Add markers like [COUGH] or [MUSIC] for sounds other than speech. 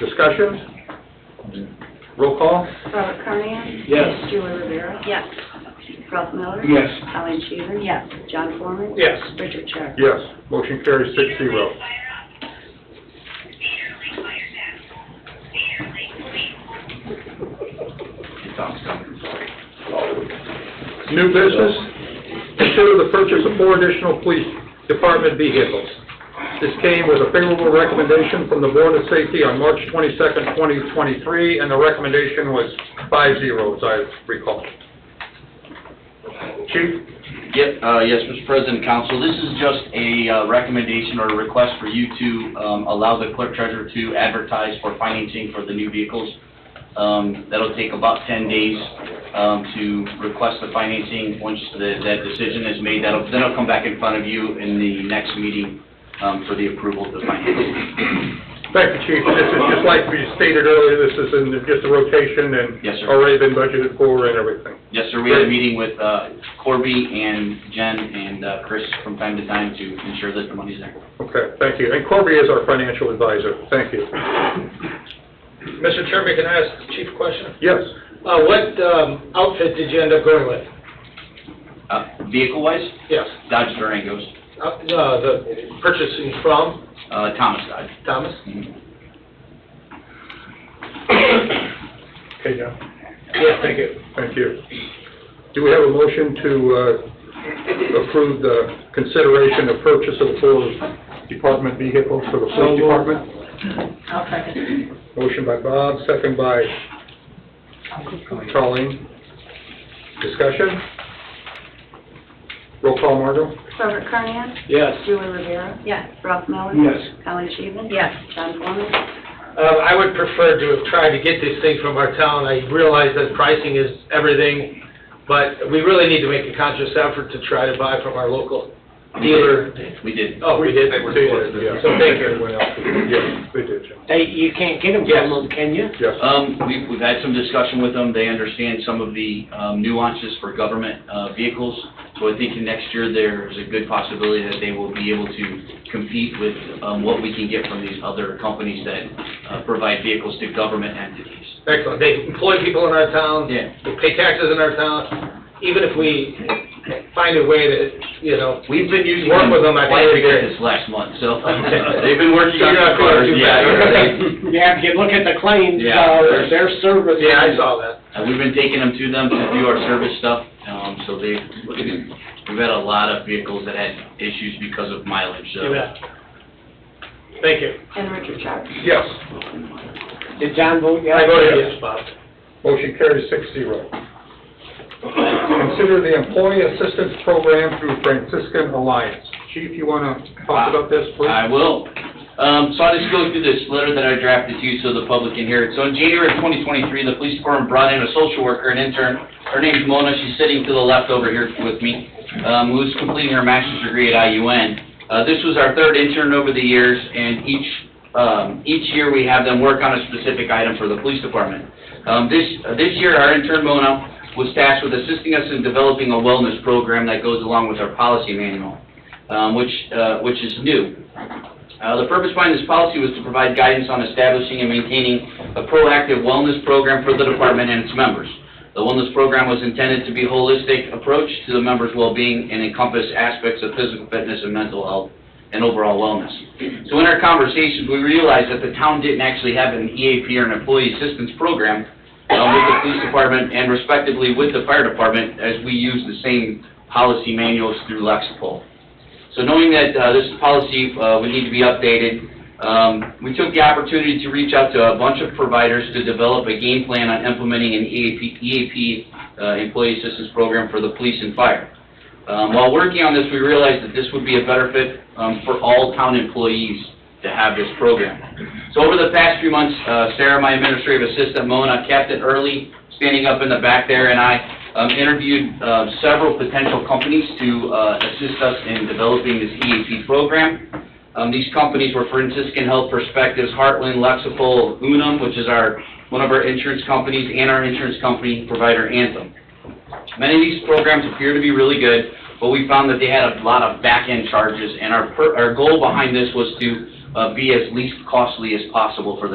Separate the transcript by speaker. Speaker 1: Discussion? Roll call?
Speaker 2: Robert Carnahan?
Speaker 1: Yes.
Speaker 2: Julie Rivera?
Speaker 3: Yes.
Speaker 2: Ralph Miller?
Speaker 1: Yes.
Speaker 2: Alan Sheehan?
Speaker 3: Yes.
Speaker 2: John Foreman?
Speaker 1: Yes.
Speaker 2: Richard Sharp?
Speaker 1: Yes, motion carries six zero. New business, consider the purchase of four additional police department vehicles. This came with a favorable recommendation from the Board of Safety on March twenty-second, twenty twenty-three, and the recommendation was five zero, as I recall. Chief?
Speaker 4: Yep, uh, yes, Mr. President, Council, this is just a uh, recommendation or a request for you to um, allow the clerk treasurer to advertise for financing for the new vehicles. Um, That'll take about 10 days um, to request the financing. Once the- that decision is made, that'll, then it'll come back in front of you in the next meeting um, for the approval of the financing.
Speaker 1: Thank you, Chief. This is just like we stated earlier, this is in just a rotation and
Speaker 4: Yes, sir.
Speaker 1: already been budgeted for and everything.
Speaker 4: Yes, sir, we had a meeting with uh, Corby and Jen and uh, Chris from time to time to ensure that the money's there.
Speaker 1: Okay, thank you. And Corby is our financial advisor. Thank you.
Speaker 5: Mr. Chairman, can I ask the chief a question?
Speaker 1: Yes.
Speaker 5: Uh, what, um, outfit did you end up going with?
Speaker 4: Uh, Vehicle-wise,
Speaker 5: Yes,
Speaker 4: Dodge Durangos.
Speaker 5: uh, uh, the purchasing from
Speaker 4: Uh, Thomas died.
Speaker 5: Thomas?
Speaker 1: Okay, John.
Speaker 5: Yes, thank you.
Speaker 1: Thank you. Do we have a motion to uh, approve the consideration of purchase of the four department vehicles for the police department?
Speaker 3: I'll second.
Speaker 1: Motion by Bob, second by Colleen. Discussion? Roll call, Margot?
Speaker 2: Robert Carnahan?
Speaker 5: Yes.
Speaker 2: Julie Rivera?
Speaker 3: Yes.
Speaker 2: Ralph Miller?
Speaker 1: Yes.
Speaker 2: Alan Sheehan?
Speaker 3: Yes.
Speaker 2: John Foreman?
Speaker 5: Uh, I would prefer to have tried to get this thing from our town. I realize that pricing is everything, but we really need to make a conscious effort to try to buy from our local dealer.
Speaker 4: We did.
Speaker 5: Oh, we did?
Speaker 1: They did, yeah.
Speaker 5: So thank you.
Speaker 1: Everyone else did. Yes, they did, Jim.
Speaker 6: They, you can't get them
Speaker 5: Yes.
Speaker 6: from them, can you?
Speaker 1: Yes.
Speaker 4: Um, we've, we've had some discussion with them. They understand some of the um, nuances for government, uh, vehicles. So I think next year there's a good possibility that they will be able to compete with, um, what we can get from these other companies that, uh, provide vehicles to government entities.
Speaker 5: Excellent. They employ people in our town.
Speaker 4: Yeah.
Speaker 5: They pay taxes in our town. Even if we find a way to, you know,
Speaker 4: We've been using
Speaker 5: Work
Speaker 4: them
Speaker 5: with them, I think
Speaker 4: quite a
Speaker 5: it'd be
Speaker 4: bit
Speaker 5: great.
Speaker 4: this last month, so. [LAUGHS]
Speaker 5: Okay.
Speaker 4: They've been working on
Speaker 5: You're
Speaker 4: the
Speaker 5: not
Speaker 4: cars,
Speaker 5: doing too
Speaker 4: yeah.
Speaker 5: bad.
Speaker 4: [LAUGHS] they-
Speaker 6: Yeah, if you look at the claims,
Speaker 4: Yeah.
Speaker 6: uh, their service.
Speaker 5: yeah, I saw that.
Speaker 4: And Uh, we've been taking them to them to do our service stuff, um, so they, we've had a lot of vehicles that had issues because of mileage, so.
Speaker 5: You bet. Thank you.
Speaker 2: And Richard Sharp?
Speaker 1: Yes.
Speaker 6: Did John vote yes?
Speaker 5: I voted yes, Bob.
Speaker 1: Motion carries six zero. Consider the Employee Assistance Program through Franciscan Alliance. Chief, you want to talk about this, please?
Speaker 4: I will. Um, so I'll just go through this letter that I drafted to you so the public can hear it. So in January of 2023, the police department brought in a social worker, an intern. Her name's Mona. She's sitting to the left over here with me, um, who's completing her master's degree at IUN. Uh, this was our third intern over the years, and each, um, each year we have them work on a specific item for the police department. Um, this, uh, this year, our intern Mona was tasked with assisting us in developing a wellness program that goes along with our policy manual, um, which, uh, which is new. Uh, The purpose behind this policy was to provide guidance on establishing and maintaining a proactive wellness program for the department and its members. The wellness program was intended to be a holistic approach to the members' well-being and encompass aspects of physical fitness and mental health and overall wellness. So in our conversations, we realized that the town didn't actually have an EAP or an employee assistance program uh, with the police department and respectively with the fire department as we use the same policy manuals through Lexipol. So knowing that uh, this policy uh, would need to be updated, um, we took the opportunity to reach out to a bunch of providers to develop a game plan on implementing an E EAP, EAP uh, Employee Assistance Program for the police and fire. Um, While working on this, we realized that this would be a better fit um, for all town employees to have this program. So over the past few months, uh, Sarah, my administrative assistant, Mona, Captain Early, standing up in the back there, and I um, interviewed uh, several potential companies to uh, assist us in developing this EAP program. Um, These companies were Franciscan Health Perspectives, Heartland, Lexipol, Unum, which is our, one of our insurance companies, and our insurance company provider, Anthem. Many of these programs appear to be really good, but we found that they had a lot of back-end charges, and our, per- our goal behind this was to uh, be as least costly as possible for the